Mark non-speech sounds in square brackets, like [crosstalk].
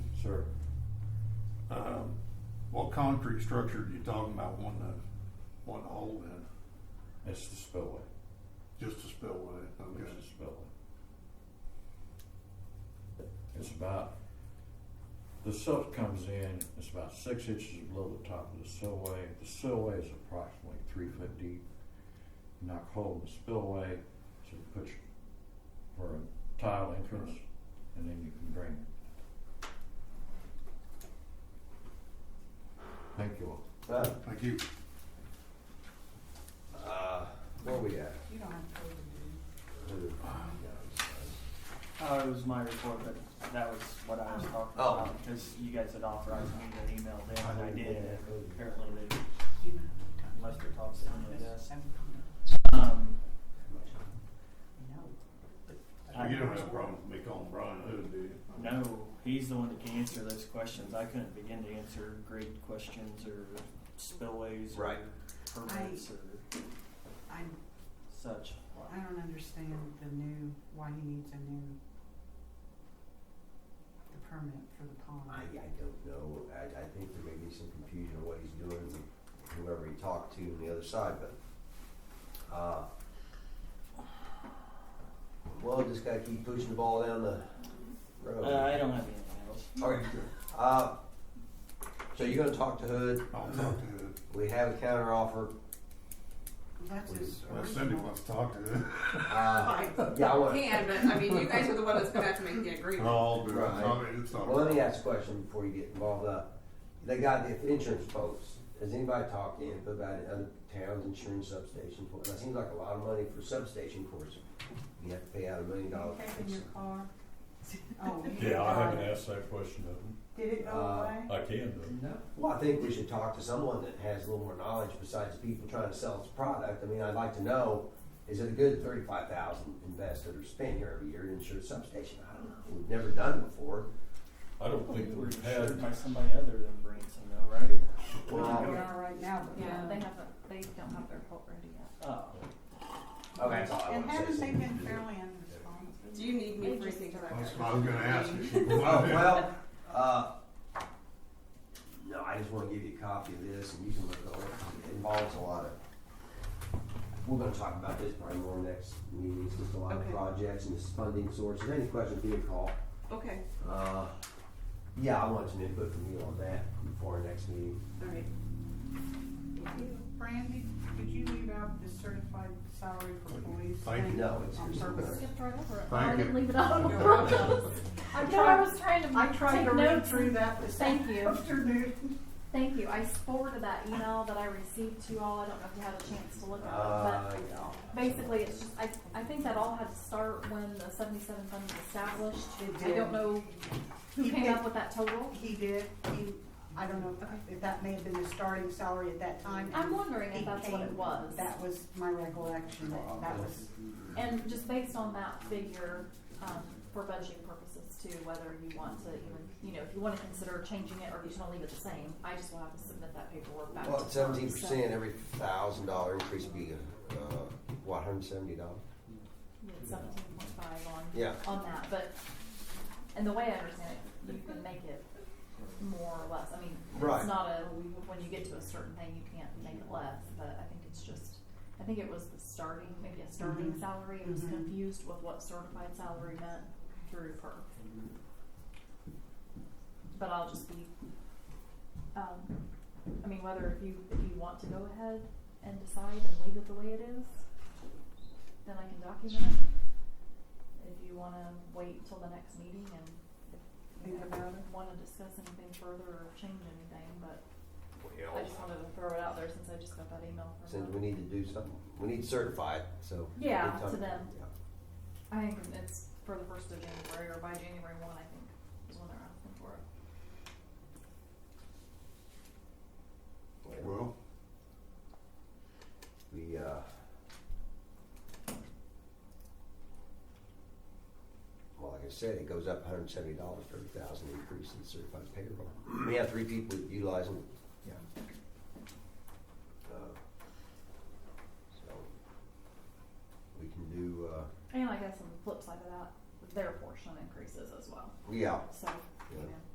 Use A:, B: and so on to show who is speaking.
A: sir. Um, what concrete structure are you talking about wanting to, wanting to hold in?
B: It's the spillway,
A: Just a spillway, okay.
B: it's the spillway. It's about, the silt comes in, it's about six inches below the top of the spillway. The spillway is approximately three foot deep. Knock a hole in the spillway, so you put your, for a tile entrance, and then you can drain it. Thank you all.
C: So,
A: Thank you.
C: uh, where we at?
D: You don't have to pay the
E: Oh, it was my report, but that was what I was talking
C: Oh.
E: about, because you guys had authorized me to email them, and I did, and apparently they,
D: dues. You don't have to
E: unless they're talking to
D: talk
E: somebody
D: to us.
E: else.
D: I'm-
E: Um,
D: No.
E: I-
A: You don't have a problem with me calling Brian Hood, do you?
E: no, he's the one that can answer those questions, I couldn't begin to answer grade questions or spillways or
C: Right.
E: permits or
D: I,
E: such.
D: I don't understand the new, why he needs a new, the permit for the pond.
C: I, I don't know, I, I think there may be some confusion on what he's doing, with whoever he talked to on the other side, but, uh, well, just gotta keep pushing the ball down the road.
E: Uh, I don't have anything else.
C: Okay, uh, so you're gonna talk to Hood,
A: I'll talk to Hood.
C: we have a counter offer,
D: That's his
A: Well, Cindy
D: original.
A: wants to talk to Hood.
C: uh,
F: Fine.
C: yeah, I want.
F: Can, but I mean, you guys are the one that's gonna have to make the
A: [laughs]
F: agreement.
A: I'll do it.
C: Right.
A: I mean, it's not.
C: Well, let me ask a question before you get involved. Uh, they got the insurance folks. Has anybody talked to them about it? Other towns, insurance substations? Well, that seems like a lot of money for substation, of course. You have to pay out a million
D: You
C: dollars.
D: have in your car? [laughs] Oh, you
G: Yeah, I
D: have
G: haven't asked that question of
D: Did it go
C: Uh,
D: away?
G: them. I can though.
E: No.
C: Well, I think we should talk to someone that has a little more knowledge besides people trying to sell us a product. I mean, I'd like to know, is it a good thirty-five thousand invested or spent here every year to insure a substation? I don't know. We've never done it before.
G: I don't think
E: We were
G: we've had,
E: insured by somebody other than Branson though, right?
D: We
C: Well,
D: are right now, but.
H: Yeah, they haven't, they don't have their quote ready yet.
E: Oh,
C: okay, that's all I
D: And
C: want to say.
D: haven't they been fairly unresponsive?
F: Do you need me for anything?
A: That's what I was gonna ask [laughs] you.
C: Oh, well, uh, no, I just wanna give you a copy of this and you can look it over. It involves a lot of, we're gonna talk about this probably more next meeting. It's just a lot of
F: Okay.
C: projects and this funding sources. Any questions, give me a call.
F: Okay,
C: Uh, yeah, I want some input from you on that before our next meeting.
F: alright.
D: Brandy, did you leave out the certified salary for police?
A: Thank you.
C: No, it's
D: On
C: here
D: purpose.
C: somewhere.
H: Skipped right over it.
A: Thank
H: [laughs] I didn't
A: you.
H: leave it on
D: You're
H: purpose. I know, I was trying
D: I
H: to
D: tried to
H: take
D: read
H: notes.
D: through that this
H: Thank you. [laughs]
D: afternoon.
H: Thank you. I forwarded that email that I received to you all. I don't know if you had a chance to look at
C: Uh,
H: it,
C: yeah.
H: but basically, it's just, I, I think that all had to start when the seventy-seven fund was established.
D: It
H: I
D: did.
H: don't know who
D: You
H: came
D: did.
H: up with that total.
D: He did, he, I don't know if- if that may have been the starting salary at that time.
H: I'm wondering
D: He
H: if that's what it
D: came-
H: was.
D: That was my recollection, that that was,
H: And just based on that figure, um, for budgeting purposes too, whether you want to even, you know, if you wanna consider changing it or if you just wanna leave it the same, I just will have to submit that paperwork back to
C: Well,
H: Tom,
C: seventeen percent,
H: so
C: every thousand dollar increase would be, uh, what, hundred and seventy dollars?
H: you had seventeen point five on.
C: Yeah.
H: On that, but, and the way I understand it, you can make it more or less, I mean,
C: Right.
H: it's not a, when you get to a certain thing, you can't make it less, but I think it's just, I think it was the starting, maybe a starting
D: Mhm.
H: salary, it was
D: Mhm.
H: confused with what certified salary meant through PERF. But I'll just be, um, I mean, whether if you, if you want to go ahead and decide and leave it the way it is, then I can document it. If you wanna wait till the next meeting and if you
D: Think about it.
H: wanna discuss anything further or change anything, but I
C: Well,
H: just wanted to throw it out there since I just got that email from
C: since
H: them.
C: we need to do something, we need to certify it, so.
H: Yeah,
C: Good
H: to
C: time.
H: them.
C: Yeah.
H: I think it's for the first of January or by January one, I think, is when they're asking for it.
A: Well,
C: We, uh. Well, like I said, it goes up hundred and seventy dollars for every thousand increase in certified payroll. We have three people utilizing. Yeah. So. We can do, uh,
H: And I guess on the flip side of that, their portion increases as well.
C: yeah,
H: So